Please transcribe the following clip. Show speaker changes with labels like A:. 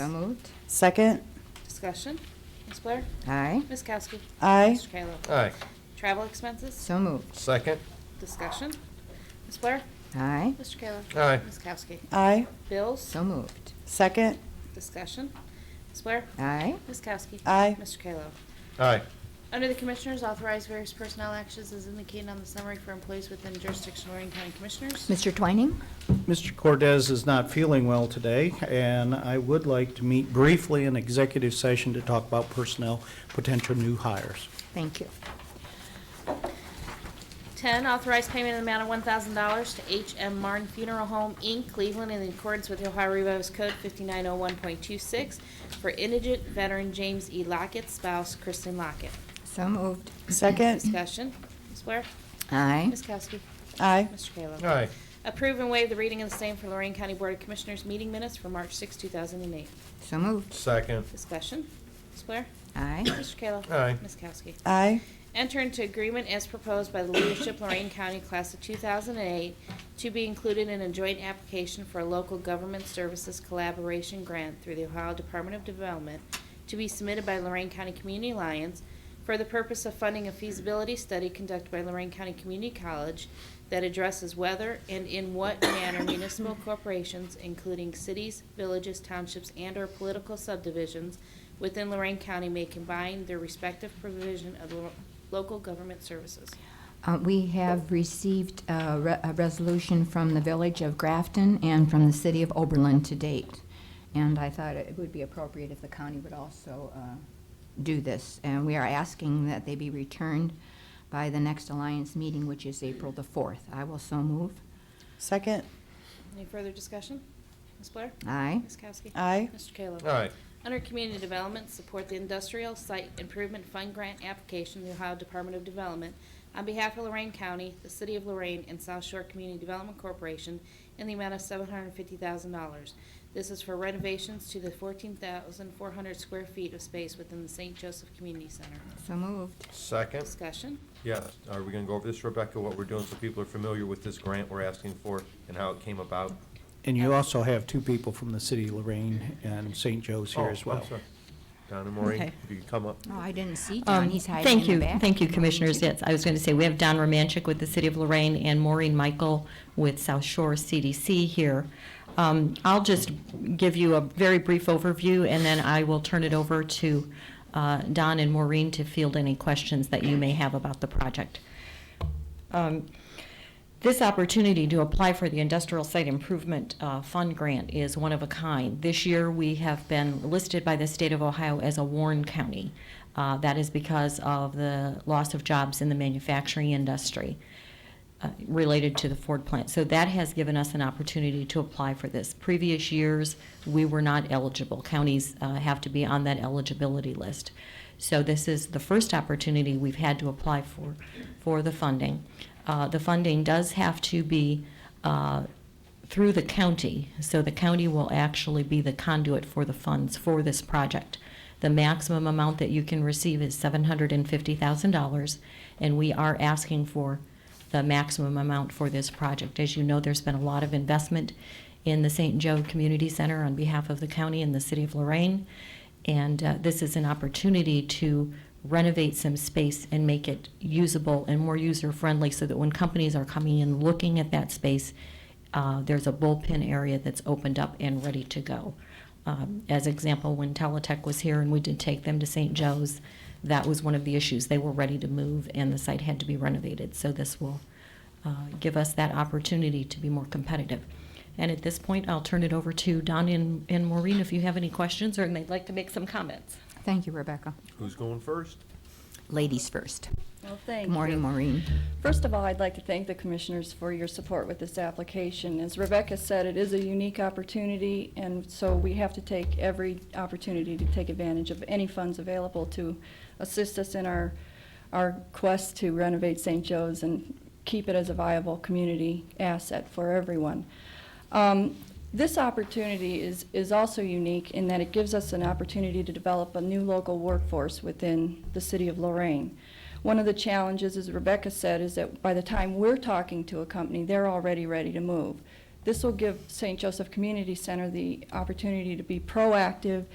A: So moved.
B: Second,
C: Discussion. Ms. Blair?
A: Aye.
C: Ms. Kowski?
B: aye.
C: Mr. Kayla?
D: Aye.
C: Travel expenses?
A: So moved.
D: Second.
C: Discussion. Ms. Blair?
A: Aye.
C: Mr. Kayla?
D: Aye.
C: Ms. Kowski?
B: Aye.
C: Bills?
A: So moved.
B: Second,
C: Discussion. Ms. Blair?
A: Aye.
C: Ms. Kowski?
B: Aye.
C: Mr. Kayla?
D: Aye.
C: Under the Commissioners, authorize various personnel actions as indicated on the summary for employees within jurisdiction of Lorraine County Commissioners.
A: Mr. Twining?
E: Mr. Cordez is not feeling well today, and I would like to meet briefly in executive session to talk about personnel, potential new hires.
A: Thank you.
C: 10, authorize payment in the amount of $1,000 to H.M. Martin Funeral Home, Inc., Cleveland, in accordance with the Ohio Revised Code 5901.26 for indigent veteran James E. Lockett, spouse Kristen Lockett.
A: So moved.
B: second,
C: Discussion. Ms. Blair?
A: Aye.
C: Ms. Kowski?
B: aye.
C: Mr. Kayla?
D: Aye.
C: Approve and waive the reading of the same for Lorraine County Board of Commissioners meeting minutes for March 6, 2008.
A: So moved.
D: Second.
C: Discussion. Ms. Blair?
A: Aye.
C: Mr. Kayla?
D: Aye.
C: Ms. Kowski?
B: Aye.
C: Enter into agreement as proposed by the leadership Lorraine County Class of 2008 to be included in a joint application for a local government services collaboration grant through the Ohio Department of Development to be submitted by Lorraine County Community Alliance for the purpose of funding a feasibility study conducted by Lorraine County Community College that addresses whether and in what manner municipal corporations, including cities, villages, townships, and/or political subdivisions within Lorraine County may combine their respective provision of lo- local government services.
A: Uh, We have received a re- a resolution from the Village of Grafton and from the City of Oberlin to date. And I thought it would be appropriate if the county would also uh, do this. And we are asking that they be returned by the next Alliance meeting, which is April the 4th. I will so move.
B: Second,
C: Any further discussion? Ms. Blair?
A: Aye.
C: Ms. Kowski?
B: aye.
C: Mr. Kayla?
D: Aye.
C: Under Community Development, support the Industrial Site Improvement Fund Grant application, to the Ohio Department of Development, on behalf of Lorraine County, the City of Lorraine, and South Shore Community Development Corporation, in the amount of seven hundred and fifty thousand dollars. This is for renovations to the fourteen thousand four hundred square feet of space within the St. Joseph Community Center.
A: So moved.
D: Second.
C: Discussion?
D: Yes. Are we going to go over this, Rebecca, what we're doing so people are familiar with this grant we're asking for and how it came about?
E: And you also have two people from the city of Lorraine and St. Joe's
D: Oh,
E: here as
D: I'm
E: well.
D: sorry. Don and Maureen,
F: Okay.
D: if you could come up.
A: Oh, I didn't see
F: Um,
A: John. He's hiding
F: Thank
A: in the
F: you,
A: back.
F: thank you, Commissioners. Yes, I was going to say, we have Don Romanchik with the City of Lorraine and Maureen Michael with South Shore CDC here. Um, I'll just give you a very brief overview, and then I will turn it over to uh, Don and Maureen to field any questions that you may have about the project. Um, this opportunity to apply for the Industrial Site Improvement uh, Fund Grant is one of a kind. This year, we have been listed by the state of Ohio as a Warren County. Uh, That is because of the loss of jobs in the manufacturing industry uh, related to the Ford plant. So that has given us an opportunity to apply for this. Previous years, we were not eligible. Counties uh, have to be on that eligibility list. So this is the first opportunity we've had to apply for, for the funding. Uh, The funding does have to be uh, through the county, so the county will actually be the conduit for the funds for this project. The maximum amount that you can receive is $750,000, and we are asking for the maximum amount for this project. As you know, there's been a lot of investment in the St. Joe Community Center on behalf of the county and the city of Lorraine, and uh, this is an opportunity to renovate some space and make it usable and more user-friendly so that when companies are coming in looking at that space, uh, there's a bullpen area that's opened up and ready to go. Um, As example, when Teletech was here and we did take them to St. Joe's, that was one of the issues. They were ready to move and the site had to be renovated. So this will uh, give us that opportunity to be more competitive. And at this point, I'll turn it over to Don and and Maureen if you have any questions or they'd like to make some comments.
A: Thank you, Rebecca.
D: Who's going first?
A: Ladies first.
G: Well, thank
A: Good morning,
G: you.
A: Maureen.
G: First of all, I'd like to thank the commissioners for your support with this application. As Rebecca said, it is a unique opportunity, and so we have to take every opportunity to take advantage of any funds available to assist us in our, our quest to renovate St. Joe's and keep it as a viable community asset for everyone. Um, This opportunity is, is also unique in that it gives us an opportunity to develop a new local workforce within the city of Lorraine. One of the challenges, as Rebecca said, is that by the time we're talking to a company, they're already ready to move. This will give St. Joseph Community Center the opportunity to be proactive